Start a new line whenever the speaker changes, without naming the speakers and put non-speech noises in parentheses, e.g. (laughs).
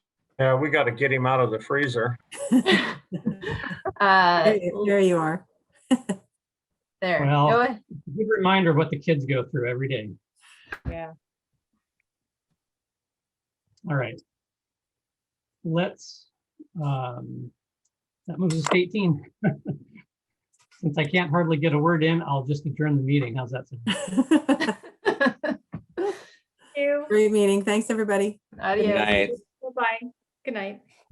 Yeah, we got to get him out of the freezer.
Uh,
There you- there you are. (laughs)
there.
Well-
Go ahead.
Good reminder of what the kids go through every day.
Yeah.
All right. Let's, um, that moves us to eighteen. (laughs) Since I can't hardly get a word in, I'll just adjourn the meeting. How's that? sound?
You.
Great meeting. Thanks, everybody.
Adios.
night.
Bye-bye. Good night.